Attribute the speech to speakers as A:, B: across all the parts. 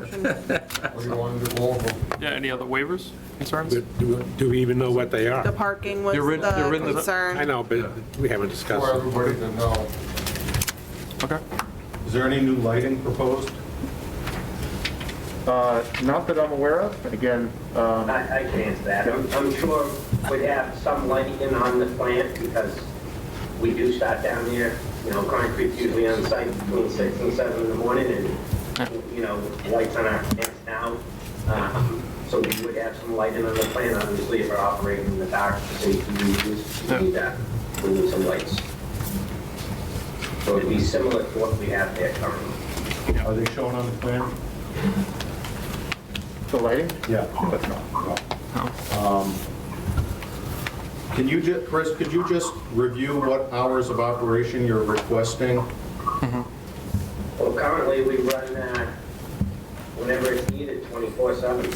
A: Motion,
B: Or you want to do all of them?
C: Yeah, any other waivers, concerns?
D: Do- Do do we even know what they
A: the
D: are?
A: parking was
C: They're in- they're
A: the
C: in the-
D: I
A: concern.
D: know, but we haven't
B: For
D: discussed.
B: everybody to know.
C: Okay.
E: Is there any new lighting proposed?
F: Uh, Not that I'm aware of, again, um,
G: I, I can answer that. I'm, I'm sure we'd have some lighting in on the plant because we do start down there, you know, concrete usually on site between six and seven in the morning and, you know, lights on our plants now. Um, So we would have some lighting on the plant, obviously, if we're operating in the dark for safety reasons, we need that, we need some lights. So it'd be similar to what we have there currently.
E: Are they shown on the plan?
F: the lighting.
E: Yeah. but no, no. Um, Can you, ju- Chris, could you just review what hours of operation you're requesting?
G: Well, currently, we run, uh, whenever it's needed, 24/7.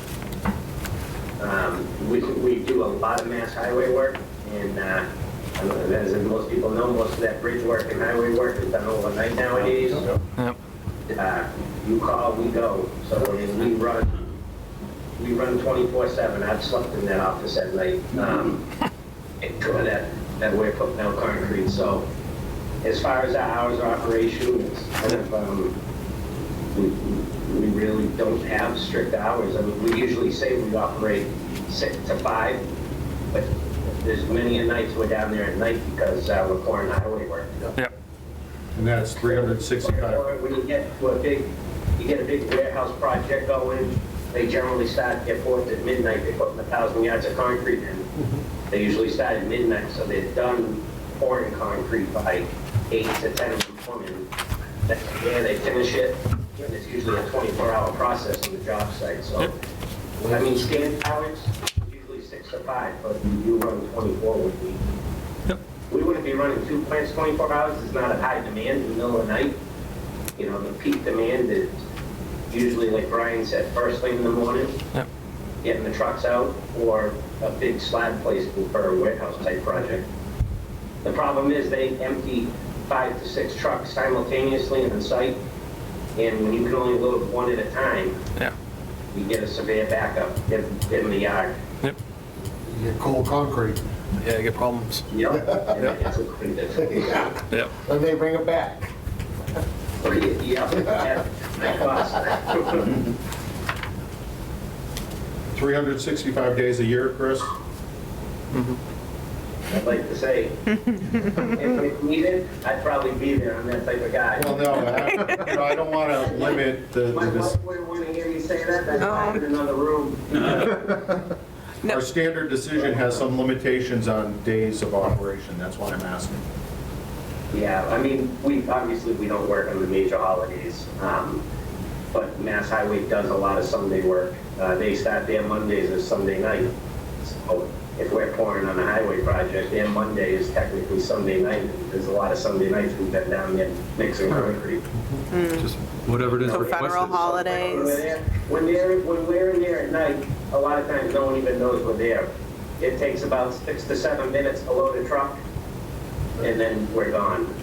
G: Um, We we do a lot of mass highway work, and uh, I don't know, as most people know, most of that bridge work and highway work is done overnight nowadays.
C: Yep.
G: Uh, You call, we go. So I mean, we run, we run 24/7. I've slept in that office at night. um, and tore that, that way of putting out concrete, so as far as our hours of operation, it's kind of, um, we, we really don't have strict hours, I mean, we usually say we operate six to five, but there's many a nights we're down there at night because, uh, we're pouring highway work.
C: Yep.
E: And that's 365.
G: Or when you get to a big, you get a big warehouse project going, they generally start their fourth at midnight, they're putting a thousand yards of concrete in. They usually start at midnight, so they're done pouring concrete by eight to ten in the morning. That's where they finish it, and it's usually a twenty-four hour process on the job site, so. I mean, standard hours, usually six to five, but we do run twenty-four with me. We wouldn't be running two plants 24 hours, it's not a high demand in the middle of the night. You know, the peak demand is usually, like Brian said, first thing in the morning,
C: Yep.
G: getting the trucks out, or a big slab placement for a warehouse type project. The problem is they empty five to six trucks simultaneously on site, and when you can only load one at a time,
C: Yeah.
G: you get a severe backup in in the yard.
C: Yep.
B: You get cold concrete.
C: Yeah, you get problems.
G: Yep. And it's a pretty difficult.
C: Yep.
B: Then they bring it back.
G: Yeah, that costs.
E: 365 days a year, Chris?
G: I'd like to say, if it needed, I'd probably be there, I'm that type of guy.
E: Well, no, I- no, I don't want to limit the,
G: My
E: the-
G: wife wouldn't want to hear me say that, that's
A: Oh.
G: why I'm in another room.
A: No.
E: our standard decision has some limitations on days of operation, that's why I'm asking.
G: Yeah, I mean, we, obviously, we don't work on the major holidays, um, but Mass Highway does a lot of Sunday work. Uh, They start their Mondays or Sunday night. So If we're pouring on a highway project, their Monday is technically Sunday night. There's a lot of Sunday nights we've been down there mixing concrete.
C: Just
H: Whatever it is
A: So federal
H: requested.
G: When we're
A: holidays.
G: there- When they're, when we're in there at night, a lot of times no one even knows we're there. It takes about six to seven minutes to load a truck, and then we're gone.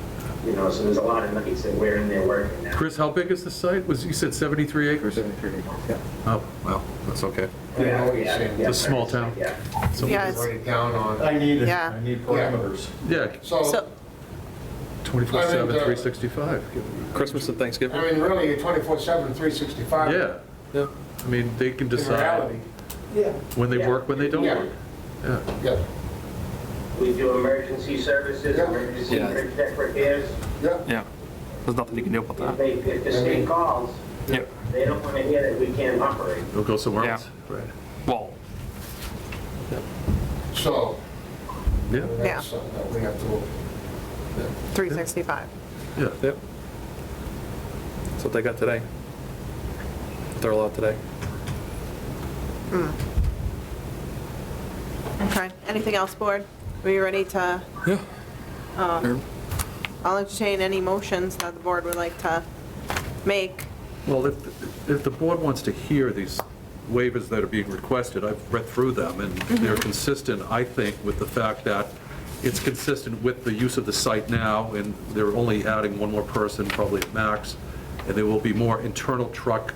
G: You know, so there's a lot of nights that we're in there working now.
H: Chris, how big is the site? Was, you said 73 acres? 73 acres, yeah. Oh, well, that's okay.
B: Yeah, I know what you're saying.
G: yeah,
H: It's a small town.
G: Yeah.
H: So-
A: Yeah, it's-
B: Write it down on.
E: I need,
A: Yeah.
E: I need parameters.
H: Yeah,
B: So,
A: So,
H: 24/7,
B: I mean, the-
H: 365.
C: Christmas and
B: I
C: Thanksgiving.
B: mean, really, you're 24/7, 365.
H: Yeah, yeah. I mean, they can
B: In reality.
H: decide when they
G: Yeah.
H: work, when they don't
B: Yeah.
H: work. Yeah,
B: Yeah,
G: We do emergency services,
B: Yeah.
G: emergency
C: Yeah.
G: tech repairs.
B: yeah.
C: Yeah. There's nothing you can do about
G: If
C: that.
G: they, if the state calls,
C: Yep.
G: they don't want to hear that we can't operate.
H: they'll go somewhere
C: Yeah.
H: else. Right.
C: Well,
B: So,
H: Yeah,
A: Yeah.
B: that's something that we have to,
A: 365.
H: yeah.
I: Yep. That's what they got today. They're allowed today.
A: Hmm. Okay, anything else, board? Are you ready to?
I: Yeah.
A: um, I'll entertain any motions that the board would like to make.
H: Well, if, if the board wants to hear these waivers that are being requested, I've read through them, and they're consistent, I think, with the fact that it's consistent with the use of the site now, and they're only adding one more person, probably at max, and there will be more internal truck